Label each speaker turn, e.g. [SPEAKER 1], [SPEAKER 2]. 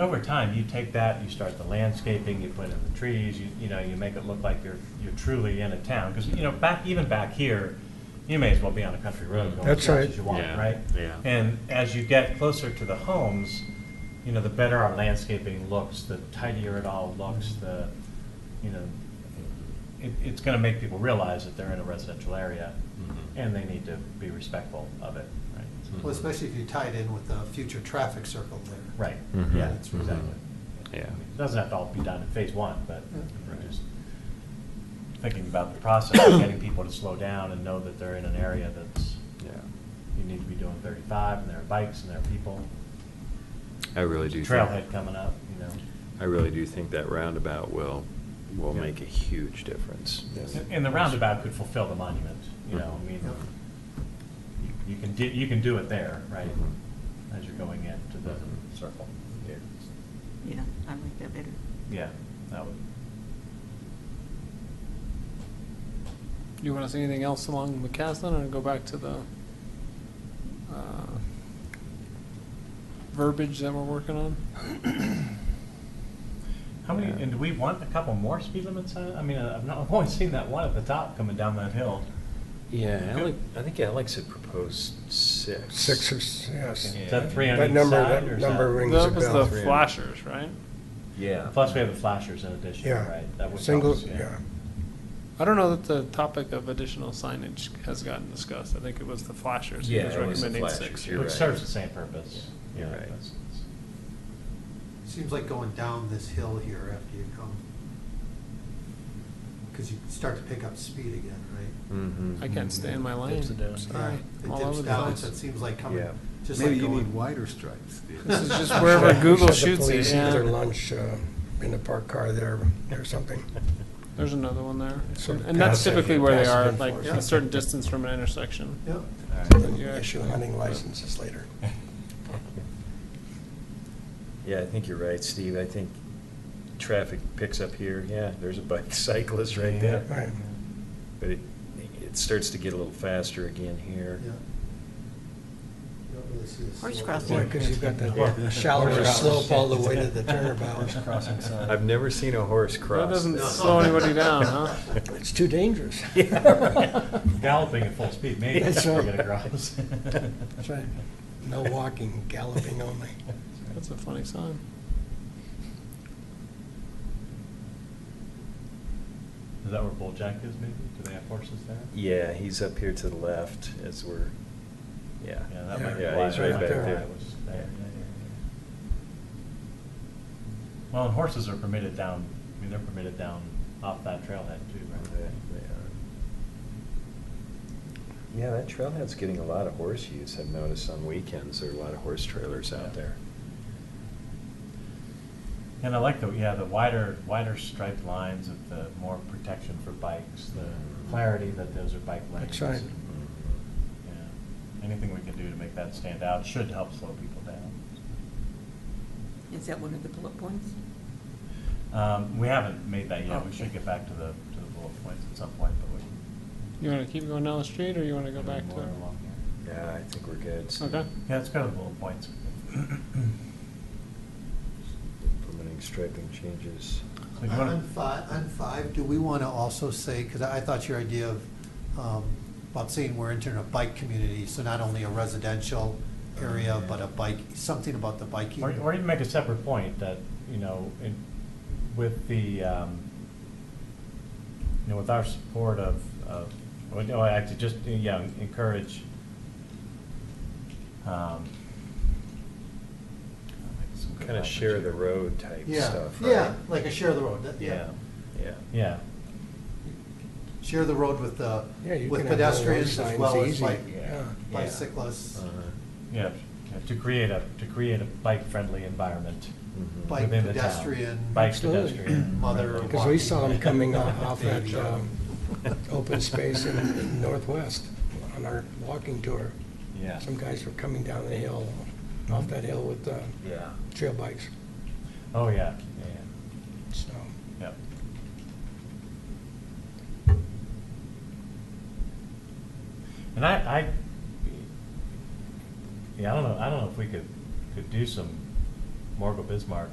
[SPEAKER 1] Over time, you take that, you start the landscaping, you put in the trees, you, you know, you make it look like you're, you're truly in a town. Because, you know, back, even back here, you may as well be on a country road going as
[SPEAKER 2] That's
[SPEAKER 1] fast
[SPEAKER 2] right.
[SPEAKER 1] as you want,
[SPEAKER 3] Yeah,
[SPEAKER 1] right?
[SPEAKER 3] yeah.
[SPEAKER 1] And as you get closer to the homes, you know, the better our landscaping looks, the tidier it all looks,
[SPEAKER 2] Mm-hmm.
[SPEAKER 1] the, you know, it, it's gonna make people realize that they're in a residential area
[SPEAKER 3] Mhm.
[SPEAKER 1] and they need to be respectful of it, right?
[SPEAKER 3] Mm-hmm.
[SPEAKER 4] Well, especially if you tie it in with the future traffic circle there.
[SPEAKER 1] Right,
[SPEAKER 3] Mhm.
[SPEAKER 1] yeah,
[SPEAKER 4] That's
[SPEAKER 1] exactly.
[SPEAKER 3] Mm-hmm. Yeah.
[SPEAKER 1] It Doesn't have to all be done in phase one, but
[SPEAKER 4] Yeah.
[SPEAKER 1] we're just thinking about the process, of getting people to slow down and know that they're in an area that's,
[SPEAKER 3] Yeah.
[SPEAKER 1] you need to be doing thirty-five, and there are bikes, and there are people.
[SPEAKER 3] I really do.
[SPEAKER 1] There's
[SPEAKER 3] think-
[SPEAKER 1] a Trailhead coming up, you know.
[SPEAKER 3] I really do think that roundabout will, will
[SPEAKER 1] Yeah.
[SPEAKER 3] make a huge difference.
[SPEAKER 1] And- And the roundabout could fulfill the monument, you know, I
[SPEAKER 3] Mm-hmm.
[SPEAKER 1] mean, you- you can, di- you can do it there, right?
[SPEAKER 3] Mhm.
[SPEAKER 1] As you're going into the
[SPEAKER 3] Mhm.
[SPEAKER 1] circle.
[SPEAKER 5] Yeah, I like that better.
[SPEAKER 1] Yeah, that would,
[SPEAKER 6] Do you want to say anything else along McCaslin and go back to the uh, verbiage that we're working on?
[SPEAKER 1] how many,
[SPEAKER 3] Yeah.
[SPEAKER 1] and do we want a couple more speed limits on it? I mean, I- I've not, I've only seen that one at the top coming down that hill.
[SPEAKER 3] Yeah, Alex, I think Alex had proposed six.
[SPEAKER 2] Six or, s- yes.
[SPEAKER 3] Yeah.
[SPEAKER 1] Is that three on
[SPEAKER 2] That
[SPEAKER 1] each
[SPEAKER 2] number-
[SPEAKER 1] side,
[SPEAKER 2] that
[SPEAKER 1] or is
[SPEAKER 2] number
[SPEAKER 1] that-
[SPEAKER 2] Rings a
[SPEAKER 6] That was
[SPEAKER 2] bell.
[SPEAKER 6] the flashers, right?
[SPEAKER 3] Yeah.
[SPEAKER 1] Plus, we have the flashers in addition,
[SPEAKER 2] Yeah.
[SPEAKER 1] right? That would help
[SPEAKER 2] Single,
[SPEAKER 1] us,
[SPEAKER 2] yeah.
[SPEAKER 6] I don't know that the topic of additional signage has gotten discussed. I think it was the flashers. He
[SPEAKER 3] Yeah,
[SPEAKER 6] was
[SPEAKER 3] it was the
[SPEAKER 6] recommending
[SPEAKER 3] flashers,
[SPEAKER 6] six.
[SPEAKER 3] you're
[SPEAKER 1] Which
[SPEAKER 3] right.
[SPEAKER 1] serves the same purpose.
[SPEAKER 3] Yeah. You're right.
[SPEAKER 1] that's-
[SPEAKER 4] Seems like going down this hill here after you come. Because you start to pick up speed again, right?
[SPEAKER 3] Mhm.
[SPEAKER 6] I can't stay in my lane. Sorry.
[SPEAKER 4] Yeah,
[SPEAKER 6] I'm all
[SPEAKER 4] It
[SPEAKER 6] over
[SPEAKER 4] dips
[SPEAKER 6] the
[SPEAKER 4] down,
[SPEAKER 6] place.
[SPEAKER 4] so it seems like coming,
[SPEAKER 3] Yeah.
[SPEAKER 4] just
[SPEAKER 7] Maybe
[SPEAKER 4] like
[SPEAKER 7] you
[SPEAKER 4] going.
[SPEAKER 7] need wider stripes.
[SPEAKER 6] This is just wherever Google
[SPEAKER 2] Had the
[SPEAKER 6] shoots you,
[SPEAKER 2] police eat
[SPEAKER 6] yeah.
[SPEAKER 2] Their lunch uh, in the parked car there or something.
[SPEAKER 6] There's another one there.
[SPEAKER 2] Sort of
[SPEAKER 6] And that's
[SPEAKER 2] passive-
[SPEAKER 6] typically where they are,
[SPEAKER 2] passive
[SPEAKER 6] like a
[SPEAKER 2] enforcement.
[SPEAKER 6] certain distance from an intersection.
[SPEAKER 4] Yep.
[SPEAKER 1] All right.
[SPEAKER 2] And Issue hunting licenses later.
[SPEAKER 3] Yeah, I think you're right, Steve. I think traffic picks up here. Yeah, there's a bike cyclist right there.
[SPEAKER 2] Right.
[SPEAKER 3] But it, it starts to get a little faster again here.
[SPEAKER 4] Yeah. You don't really see a
[SPEAKER 5] Horse
[SPEAKER 4] slope.
[SPEAKER 5] crossing.
[SPEAKER 2] Boy, because you've got
[SPEAKER 3] Yeah.
[SPEAKER 2] that shallower
[SPEAKER 3] Horse
[SPEAKER 2] slope all the way to
[SPEAKER 4] crossing.
[SPEAKER 2] the turnabout.
[SPEAKER 4] Horse crossing sign.
[SPEAKER 3] I've never seen a horse cross.
[SPEAKER 6] doesn't
[SPEAKER 3] that.
[SPEAKER 6] slow anybody down, huh?
[SPEAKER 2] It's too dangerous.
[SPEAKER 3] Yeah.
[SPEAKER 1] Galloping at full speed, maybe
[SPEAKER 2] Yes,
[SPEAKER 1] that's
[SPEAKER 2] sir.
[SPEAKER 1] where it grows.
[SPEAKER 2] That's right. No walking, galloping only.
[SPEAKER 6] That's a funny sign.
[SPEAKER 1] Is that where Bull Jack is, maybe? Do they have horses there?
[SPEAKER 3] Yeah, he's up here to the left as we're, yeah.
[SPEAKER 1] Yeah, that might be
[SPEAKER 2] Yeah,
[SPEAKER 1] why,
[SPEAKER 3] he's
[SPEAKER 1] that
[SPEAKER 3] right
[SPEAKER 1] might
[SPEAKER 3] back
[SPEAKER 1] be why
[SPEAKER 3] there.
[SPEAKER 1] it was there. Yeah, yeah, yeah. Well, and horses are permitted down, I mean, they're permitted down off that trailhead too,
[SPEAKER 3] They-
[SPEAKER 1] right?
[SPEAKER 3] they are. Yeah, that trailhead's getting a lot of horse use. I've noticed on weekends, there are a lot of horse trailers
[SPEAKER 1] Yeah.
[SPEAKER 3] out there.
[SPEAKER 1] And I like the, yeah, the wider, wider striped lines of the more protection for bikes,
[SPEAKER 3] Mm-hmm.
[SPEAKER 1] the clarity that those are bike lanes.
[SPEAKER 2] That's right.
[SPEAKER 1] Yeah. Anything we can do to make that stand out should help slow people down.
[SPEAKER 5] Is that one of the bullet points?
[SPEAKER 1] Um, we haven't made that yet, we should get back to the, to the bullet points at some point, but we.
[SPEAKER 6] You want to keep going down the street or you want to go back
[SPEAKER 1] More along
[SPEAKER 6] to?
[SPEAKER 1] here.
[SPEAKER 3] Yeah, I think we're good.
[SPEAKER 6] Okay.
[SPEAKER 1] Yeah, let's go to the bullet points.
[SPEAKER 3] Implementing striping changes.
[SPEAKER 1] So you wanna-
[SPEAKER 4] On five, on five, do we want to also say, because I I thought your idea of, um, about saying we're entering a bike community, so not only a residential area, but a bike, something about the biking.
[SPEAKER 1] Or, or even make a separate point that, you know, in, with the, um, you know, with our support of, of, well, no, actually just, yeah, encourage, um, some good
[SPEAKER 3] Kind of share
[SPEAKER 1] language
[SPEAKER 3] the
[SPEAKER 1] here.
[SPEAKER 3] road type
[SPEAKER 4] Yeah,
[SPEAKER 3] stuff, right?
[SPEAKER 4] yeah, like a share the road, that- yeah.
[SPEAKER 1] Yeah,
[SPEAKER 3] Yeah.
[SPEAKER 1] yeah,
[SPEAKER 4] Share the road with the,
[SPEAKER 2] Yeah, you
[SPEAKER 4] with
[SPEAKER 2] can have those
[SPEAKER 4] pedestrians as
[SPEAKER 2] signs
[SPEAKER 4] well as
[SPEAKER 2] easy,
[SPEAKER 4] bike,
[SPEAKER 2] yeah.
[SPEAKER 4] bicyclists,
[SPEAKER 3] Uh-huh.
[SPEAKER 1] yeah, to create a, to create a bike-friendly environment
[SPEAKER 3] Mhm.
[SPEAKER 4] Bike
[SPEAKER 1] within the town.
[SPEAKER 4] pedestrian.
[SPEAKER 1] Bike
[SPEAKER 2] Absolutely.
[SPEAKER 1] pedestrian.
[SPEAKER 4] mother walking.
[SPEAKER 2] Because we saw them coming off, off that,
[SPEAKER 4] Baby.
[SPEAKER 2] um, open space in- in Northwest on our walking tour.
[SPEAKER 1] Yeah.
[SPEAKER 2] Some guys were coming down the hill, off that hill with, uh,
[SPEAKER 3] Yeah.
[SPEAKER 2] trail bikes,
[SPEAKER 1] Oh, yeah, yeah, yeah.
[SPEAKER 2] so.
[SPEAKER 1] Yep. And I, I, yeah, I don't know, I don't know if we could, could do some Morgul Bismarck,